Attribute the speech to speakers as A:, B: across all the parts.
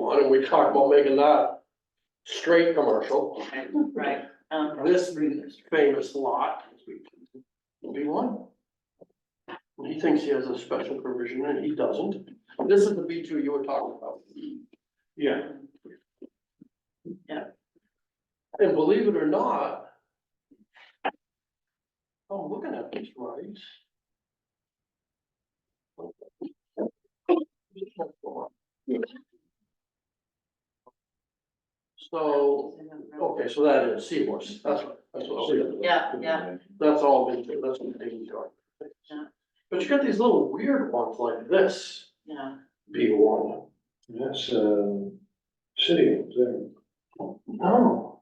A: one, and we talked about making that straight commercial,
B: Right. um,
A: this famous lot will be one. He thinks he has a special provision and he doesn't. This is the B two you were talking about.
C: Yeah,
A: And believe it or not, oh, I'm looking at these rights. So, okay, so that is Seahorse, that's, what- that's what I was.
B: Yeah, yeah.
A: That's all been, that's been taken care of.
B: Yeah.
A: But you got these little weird ones like this,
B: Yeah,
A: B one.
C: that's, uh, city, there.
A: No,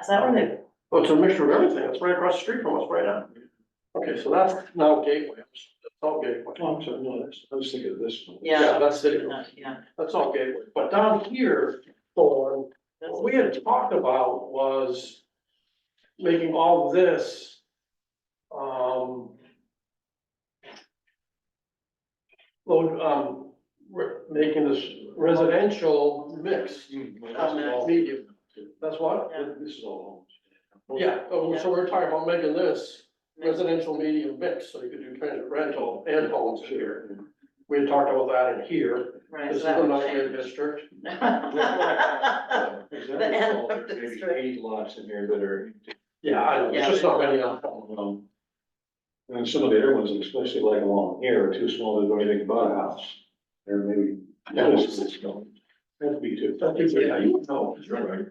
B: is that where they,
A: oh, it's a mixture of everything, it's right across the street from us, right up. Okay, so that's now Gateway, that's all Gateway.
C: Oh, I'm sorry, no, that's, I was thinking of this one.
B: yeah,
A: That's it,
B: yeah, yeah.
A: that's all Gateway, but down here, Thorn, What we had talked about was making all of this, um, load, um, re- making this residential mixed
C: This is all-
A: medium. That's what?
C: This is all homes.
A: Yeah, oh, so we're talking about making this residential medium mix, so you could do transit rental and homes here. We had talked about that in here.
B: Right,
A: This
B: so
A: is
B: that
A: the
B: would
A: nightmare
B: change.
A: district.
C: Is
B: The
C: that
B: end
C: all,
B: of the
C: there may be
B: story.
C: eight lots in here that are.
A: Yeah, I know, it's just not many of them.
C: um, And some of the other ones, especially like along here, are too small to do anything but a house. There may be.
A: Yeah.
C: That'd be too.
A: That gives you- yeah, you know,
C: You're right.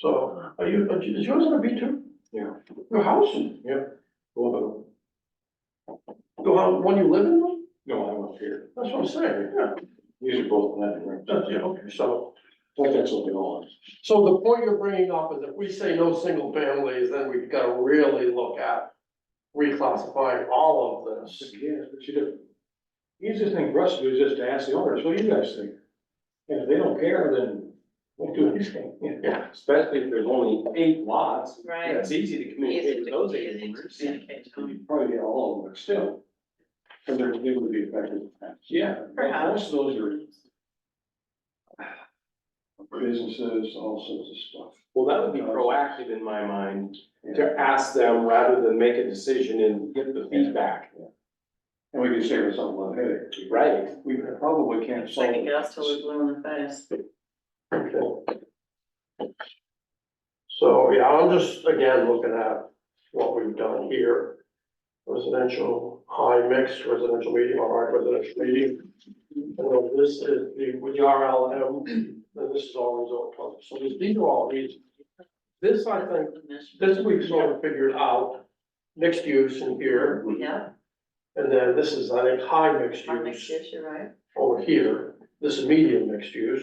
A: So, are you, is yours on a B two?
C: Yeah.
A: Your house?
C: Well, uh,
A: The one, one you live in?
C: no, I'm up here.
A: That's what I'm saying, yeah.
C: These are both landing, right?
A: That's, yeah, okay, so,
C: I think that's what they all
A: so the point you're bringing up is if we say no single families, then we've gotta really look at reclassifying all of
C: is.
A: this.
C: Yeah, but you do. Easiest thing for us to do is just to ask the owners, what do you guys think? And if they don't care, then we do anything.
A: Yeah.
D: Especially if there's only eight lots.
B: Right.
D: It's easy to communicate
B: Easy
D: with
B: to-
D: those
B: easy
D: eight
B: to
D: neighbors.
B: communicate to them.
C: You'd Probably get all of them, but still. And they're, they would be affected. Yeah. Most
B: Perhaps.
C: of those are businesses, all sorts of stuff.
D: Well, that would be proactive in my mind, to ask them rather than make a decision and get the feedback.
C: And we can save us a lot of headache.
D: Right.
C: We probably can't solve.
B: Second guess till we're
C: it.
B: blue in the face.
A: So, yeah, I'm just, again, looking at what we've done here. Residential, high mix, residential medium, or high residential medium. And then this is the, with the RLM, and this is all resort club, so these, these are all these. This, I think, this we've sort of figured out, mixed use in here,
B: Yeah,
A: and then this is, I think, high mixed
B: I think
A: use
B: you're right.
A: over here, this is medium mixed use.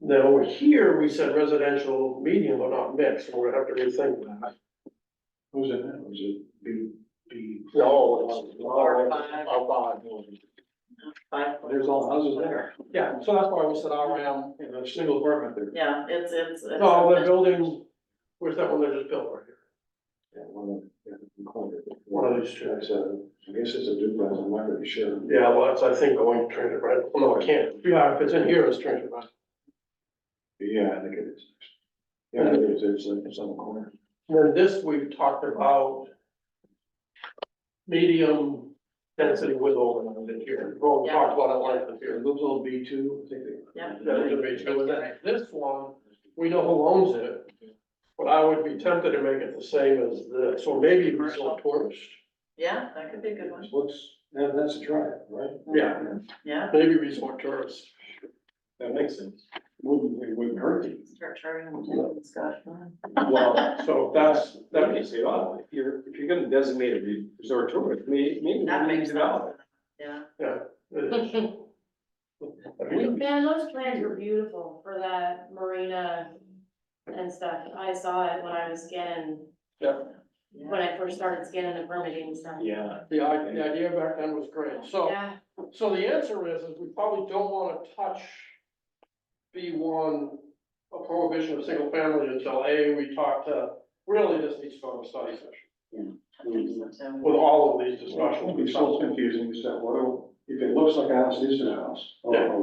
A: Then over here, we said residential medium, but not mixed, so we're gonna have to rethink that.
C: Who's in that? Was it B, B?
A: No,
B: Four, five. uh,
C: Oh, five, no.
B: Five,
C: There's all houses there.
A: Yeah, so that's why we said RM,
C: Yeah, there's single apartment there.
B: yeah, it's, it's. it's-
A: no, the Oh, building, where's that one that just built right here?
C: Yeah, one of them. corner.
A: One of these two.
C: It's a- uh, I guess it's a duplex, I'm not really sure.
A: Yeah, well, that's, I think, going to transit rental, Oh, no, I can't, yeah, if it's in here, it's transit rental.
C: Yeah, I think it is. Yeah, it is, it's, uh, it's on the corner.
A: Then this, we've talked about medium density with overland in here, we've all talked about it like in here.
C: those all B two, I think they.
B: Yeah.
A: That would be true, and then this one, we know who owns it, but I would be tempted to make it the same as this, or maybe resort tourist.
B: Yeah, that could be a good one,
C: What's, that, that's a try, right?
A: Yeah.
B: yeah,
A: Maybe resort tourist.
C: That makes sense. Wouldn't, it wouldn't hurt you.
B: start charging them to the Scotch wine.
D: Well, oh,
A: So that's,
D: that
A: that
D: makes
A: is,
D: it odd. If you're, if you're gonna designate a re- resort tourist, maybe, maybe.
B: That
D: we need
B: makes
D: to
B: sense,
D: know.
B: yeah.
A: it is. I mean,
E: Man, those plans were beautiful for that marina and stuff. I saw it when I was scanning,
B: Yeah.
E: when I first started scanning the permitting and stuff.
D: Yeah.
A: The idea, the idea back then was great, so,
E: Yeah,
A: so the answer is, is we probably don't wanna touch B one, a prohibition of single family until A, we talk to, really just needs to go to a study session.
B: I think so, too.
A: With all of these
C: It's not,
A: discussions.
C: it's so confusing, it's that, what, do- if it looks like a house, it is a house.
A: Yeah.